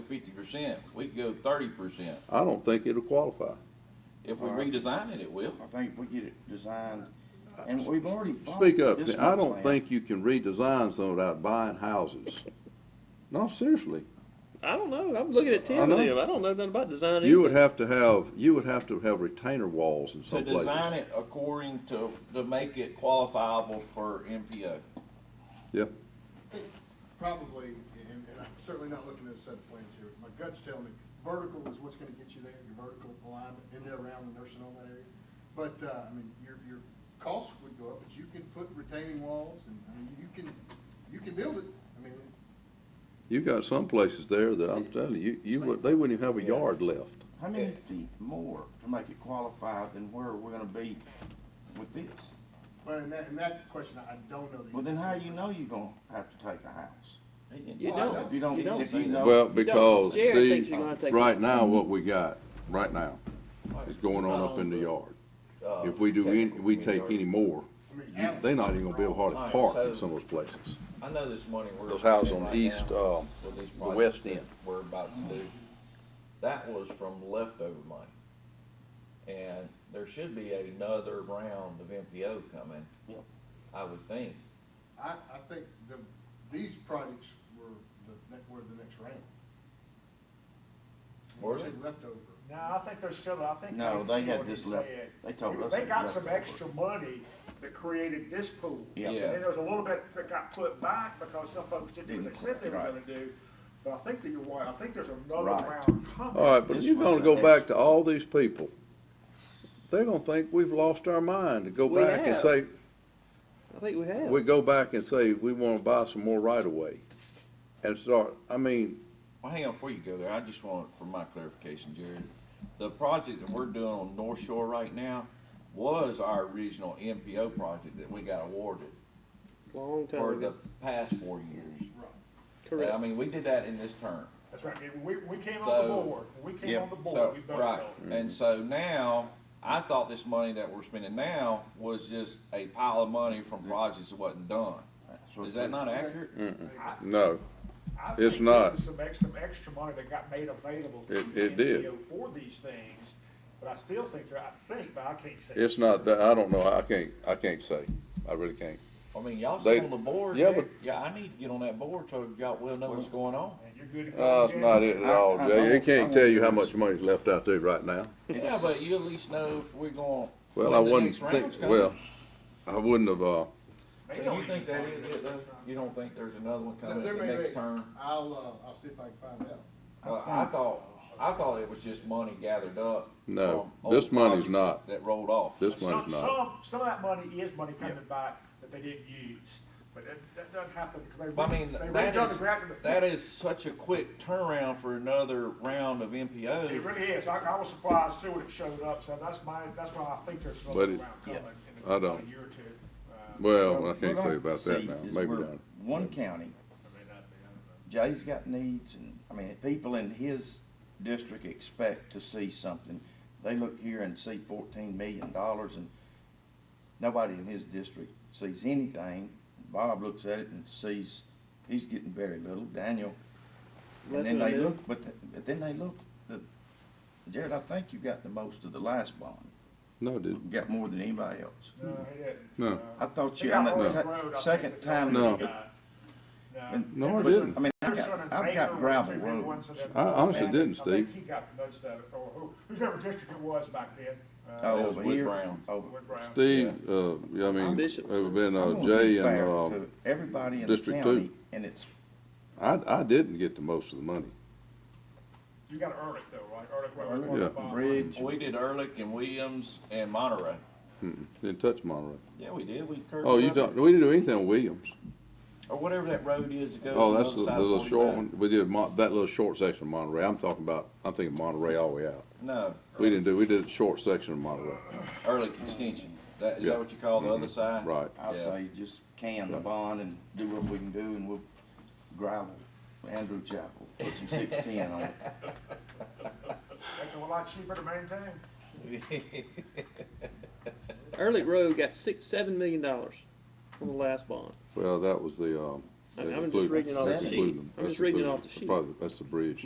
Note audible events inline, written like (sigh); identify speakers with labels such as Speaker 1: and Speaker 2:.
Speaker 1: fifty percent, we could go thirty percent.
Speaker 2: I don't think it'll qualify.
Speaker 1: If we
Speaker 3: All right.
Speaker 1: redesign it, it will.
Speaker 3: I think if we get it designed, and we've already bought
Speaker 2: Speak up.
Speaker 3: this
Speaker 2: I
Speaker 3: one
Speaker 2: don't
Speaker 3: plant.
Speaker 2: think you can redesign something without buying houses. No, seriously.
Speaker 4: I don't know. I'm looking at Tim
Speaker 2: I know.
Speaker 4: and them. I don't know nothing about design.
Speaker 2: You would
Speaker 4: either.
Speaker 2: have to have, you would have to have retainer walls in
Speaker 1: To
Speaker 2: some
Speaker 1: design
Speaker 2: places.
Speaker 1: it according to, to make it qualifiable for MPO.
Speaker 2: Yeah.
Speaker 5: think probably, and, and I'm certainly not looking at a set of plans here, my gut's telling me, vertical is what's gonna get you there, your vertical alignment, in there around the nursing home that area. But, uh, I mean, your, your costs would go up, but you can put retaining walls, and, I mean, you can, you can build it, I mean,
Speaker 2: You got some places there that I'm telling you, you would, they wouldn't even have a yard left.
Speaker 3: How many feet more to make it qualify than where we're gonna be with this?
Speaker 5: but in that, in that question, I don't know the.
Speaker 3: Well, then
Speaker 5: answer.
Speaker 3: how you know you're gonna have to take a house?
Speaker 4: You
Speaker 5: Well, I
Speaker 4: don't.
Speaker 5: don't-
Speaker 3: If you don't,
Speaker 4: You don't
Speaker 3: if
Speaker 4: say
Speaker 3: you
Speaker 4: that.
Speaker 3: know.
Speaker 2: Well,
Speaker 4: You don't.
Speaker 2: because
Speaker 4: Jared thinks
Speaker 2: Steve,
Speaker 4: you're gonna take
Speaker 2: right
Speaker 4: it.
Speaker 2: now, what we got, right now, is going on up in the
Speaker 4: Oh.
Speaker 2: yard.
Speaker 1: Um,
Speaker 2: If we
Speaker 1: uh,
Speaker 2: do any, we take any more,
Speaker 5: I mean,
Speaker 2: you- they're not even gonna be able to hardly park in some of those places.
Speaker 1: I know this morning we're.
Speaker 2: Those houses on
Speaker 1: right
Speaker 2: the east,
Speaker 1: now
Speaker 2: uh,
Speaker 1: with these
Speaker 2: the west
Speaker 1: projects that
Speaker 2: end.
Speaker 1: We're about to do, that was from leftover money. And there should be another round of MPO coming,
Speaker 3: Yep.
Speaker 1: I would think.
Speaker 5: I, I think the, these projects were the, ne- were the next round.
Speaker 1: Were
Speaker 5: You
Speaker 1: they?
Speaker 5: said Leftover.
Speaker 6: No, I think there's still, I think.
Speaker 3: No,
Speaker 6: I
Speaker 3: they
Speaker 6: see
Speaker 3: had
Speaker 6: what he
Speaker 3: this left-
Speaker 6: said.
Speaker 3: they told us
Speaker 6: They
Speaker 3: it
Speaker 6: got
Speaker 3: was
Speaker 6: some
Speaker 3: leftover.
Speaker 6: extra money that created this pool.
Speaker 3: Yeah.
Speaker 6: And
Speaker 1: Yeah.
Speaker 6: then there was a little bit that got put back because some folks didn't do what they
Speaker 3: Didn't
Speaker 6: said they were
Speaker 3: quit,
Speaker 6: gonna
Speaker 3: right.
Speaker 6: do. But I think that you're right. I think there's another
Speaker 3: Right.
Speaker 6: round coming.
Speaker 2: All right, but if
Speaker 3: This
Speaker 2: you're
Speaker 3: was
Speaker 2: gonna
Speaker 3: a
Speaker 2: go
Speaker 3: mess.
Speaker 2: back to all these people, they're gonna think we've lost our mind to go
Speaker 4: We
Speaker 2: back and
Speaker 4: have.
Speaker 2: say,
Speaker 4: I think we have.
Speaker 2: we go back and say, we wanna buy some more right of way. And start, I mean,
Speaker 1: Well, hang on, before you go there, I just want, for my clarification, Jared, the project that we're doing on North Shore right now was our original MPO project that we got awarded
Speaker 4: Long time
Speaker 1: for the
Speaker 4: ago.
Speaker 1: past four years.
Speaker 4: Correct.
Speaker 1: I mean, we did that in this term.
Speaker 6: That's right. And We, we came on the
Speaker 1: So-
Speaker 6: board. When we came
Speaker 3: Yeah.
Speaker 6: on the
Speaker 1: So,
Speaker 6: board, we voted on
Speaker 1: right,
Speaker 6: it.
Speaker 1: and so now, I thought this money that we're spending now was just a pile of money from projects that wasn't done.
Speaker 3: That's what
Speaker 1: Is that
Speaker 3: they-
Speaker 1: not accurate?
Speaker 2: no,
Speaker 6: I think
Speaker 2: It's
Speaker 6: this
Speaker 2: not.
Speaker 6: is Some extra, some extra money that got made available. to
Speaker 2: It- it
Speaker 6: the
Speaker 2: did.
Speaker 6: NPO For these things, but I still think, there- I think, but I can't say.
Speaker 2: it's not that, I don't know, I can't, I can't say, I really can't.
Speaker 1: I mean, y'all
Speaker 2: They-
Speaker 1: sit on the board,
Speaker 2: yeah,
Speaker 1: there.
Speaker 2: but-
Speaker 1: yeah, I need to get on that board so y'all will know what's going on.
Speaker 6: And you're good
Speaker 2: No,
Speaker 6: to go.
Speaker 2: Uh, it's not it at all,
Speaker 3: I- I-
Speaker 2: Jay.
Speaker 3: I
Speaker 2: It
Speaker 3: won't- I
Speaker 2: can't
Speaker 3: won't
Speaker 2: tell you
Speaker 3: do
Speaker 2: how
Speaker 3: it.
Speaker 2: much money's left out there right now.
Speaker 1: Yeah, but you at least know if we're going.
Speaker 2: Well,
Speaker 1: when
Speaker 2: I
Speaker 1: the
Speaker 2: wouldn't
Speaker 1: next round's
Speaker 2: think,
Speaker 1: coming.
Speaker 2: well, I wouldn't have, uh,
Speaker 6: They
Speaker 1: So
Speaker 6: don't
Speaker 1: you think
Speaker 6: even
Speaker 1: that
Speaker 6: know.
Speaker 1: is it though? You don't think there's another one coming
Speaker 5: There
Speaker 1: at the
Speaker 5: may
Speaker 1: next
Speaker 5: be.
Speaker 1: term?
Speaker 5: I'll, uh, I'll see if I can find out.
Speaker 1: Uh, I thought, I thought it was just money gathered up.
Speaker 2: No,
Speaker 1: from
Speaker 2: this
Speaker 1: old
Speaker 2: money's
Speaker 1: projects
Speaker 2: not.
Speaker 1: That rolled off.
Speaker 2: this
Speaker 6: Some,
Speaker 2: one's not.
Speaker 6: some, some of that money is money coming back that they didn't use, but that, that doesn't happen because they.
Speaker 1: But I mean,
Speaker 6: they
Speaker 1: that
Speaker 6: redone
Speaker 1: is,
Speaker 6: the grant-
Speaker 1: that is such a quick turnaround for another round of
Speaker 6: It
Speaker 1: MPO.
Speaker 6: really is. I, I was surprised too when it showed up, so that's my, that's why I think there's
Speaker 2: But
Speaker 6: another
Speaker 2: it-
Speaker 6: round coming in
Speaker 2: I
Speaker 6: a-
Speaker 2: don't.
Speaker 6: in a year or two. Uh,
Speaker 2: well, I can't
Speaker 3: What
Speaker 2: say
Speaker 3: I
Speaker 2: about
Speaker 3: see
Speaker 2: that now.
Speaker 3: is
Speaker 2: Maybe
Speaker 3: we're
Speaker 2: not.
Speaker 3: One county,
Speaker 6: I mean, that'd be- I don't know.
Speaker 3: Jay's got needs, and, I mean, people in his district expect to see something. They look here and see fourteen million dollars, and nobody in his district sees anything. Bob looks at it and sees, he's getting very little, Daniel. And
Speaker 4: That's
Speaker 3: then
Speaker 4: what I
Speaker 3: they
Speaker 4: do.
Speaker 3: look, but, th- but then they look, the- Jared, I think you got the most of the last bond,
Speaker 2: No, it didn't.
Speaker 3: you got more than anybody else.
Speaker 6: No, it didn't.
Speaker 2: No.
Speaker 6: Uh,
Speaker 3: I thought
Speaker 6: They
Speaker 3: you, on
Speaker 6: got
Speaker 3: the
Speaker 6: Oak
Speaker 3: se-
Speaker 6: Road, I think
Speaker 3: second
Speaker 6: it's
Speaker 3: time.
Speaker 2: No.
Speaker 6: called. No.
Speaker 3: And-
Speaker 2: No, I
Speaker 6: Anderson-
Speaker 2: didn't.
Speaker 3: I mean, I've
Speaker 6: Anderson
Speaker 3: got,
Speaker 6: and
Speaker 3: I've
Speaker 6: Baker
Speaker 3: got
Speaker 6: were
Speaker 3: gravel
Speaker 6: two big
Speaker 3: roads.
Speaker 6: ones that-
Speaker 2: I honestly didn't,
Speaker 6: I think
Speaker 2: Steve.
Speaker 6: he got the most of it, or who, whoever district it was back then. uh,
Speaker 3: Oh,
Speaker 1: That was
Speaker 3: over
Speaker 1: Wood
Speaker 3: here,
Speaker 1: Brown.
Speaker 3: over.
Speaker 6: Wood Brown.
Speaker 2: Steve, uh, yeah, I mean, it
Speaker 4: Bishop's.
Speaker 2: would have been,
Speaker 1: Oh,
Speaker 2: uh,
Speaker 3: I'm gonna
Speaker 2: Jay
Speaker 3: be
Speaker 2: and,
Speaker 3: fair
Speaker 2: uh,
Speaker 3: to Everybody in the
Speaker 2: District
Speaker 3: county,
Speaker 2: Two.
Speaker 3: and it's,
Speaker 2: I, I didn't get the most of the money.
Speaker 6: You got Ehrlich though, right? Ehrlich was
Speaker 3: Ehrlich,
Speaker 6: one of the
Speaker 2: yeah.
Speaker 6: bottom.
Speaker 3: Bridge,
Speaker 1: We did Ehrlich and Williams and Monterey.
Speaker 2: Mm-mm. Didn't touch Monterey.
Speaker 1: Yeah, we did. We curved.
Speaker 2: Oh, you
Speaker 1: around it.
Speaker 2: don't, we didn't do anything on Williams.
Speaker 1: Or whatever that road is that goes.
Speaker 2: Oh,
Speaker 1: to
Speaker 2: that's
Speaker 1: other
Speaker 2: the,
Speaker 1: side
Speaker 2: the
Speaker 1: of
Speaker 2: little short
Speaker 1: 45.
Speaker 2: one. We did Mon, that little short section of Monterey. I'm talking about, I'm thinking Monterey all the way out.
Speaker 1: No,
Speaker 2: We didn't do, we did the short section of Monterey.
Speaker 1: Ehrlich extension. That, is
Speaker 2: Yeah. Mm-hmm.
Speaker 1: that what you call the other side?
Speaker 2: Right.
Speaker 3: I
Speaker 1: Yeah.
Speaker 3: say, just can the bond and do what we can do, and we'll gravel Andrew Chapel, put some six-ten on it.
Speaker 6: That's a lot cheaper to maintain.
Speaker 1: (laughs)
Speaker 4: Ehrlich Road got six, seven million dollars on the last bond.
Speaker 2: Well, that was the, um.
Speaker 4: I-
Speaker 2: that
Speaker 4: I'm just
Speaker 2: included-
Speaker 4: reading it off the
Speaker 2: that's
Speaker 4: sheet.
Speaker 2: included-
Speaker 4: I'm
Speaker 2: that's
Speaker 4: just reading it
Speaker 2: included.
Speaker 4: off the sheet.
Speaker 2: Probably, that's the bridge.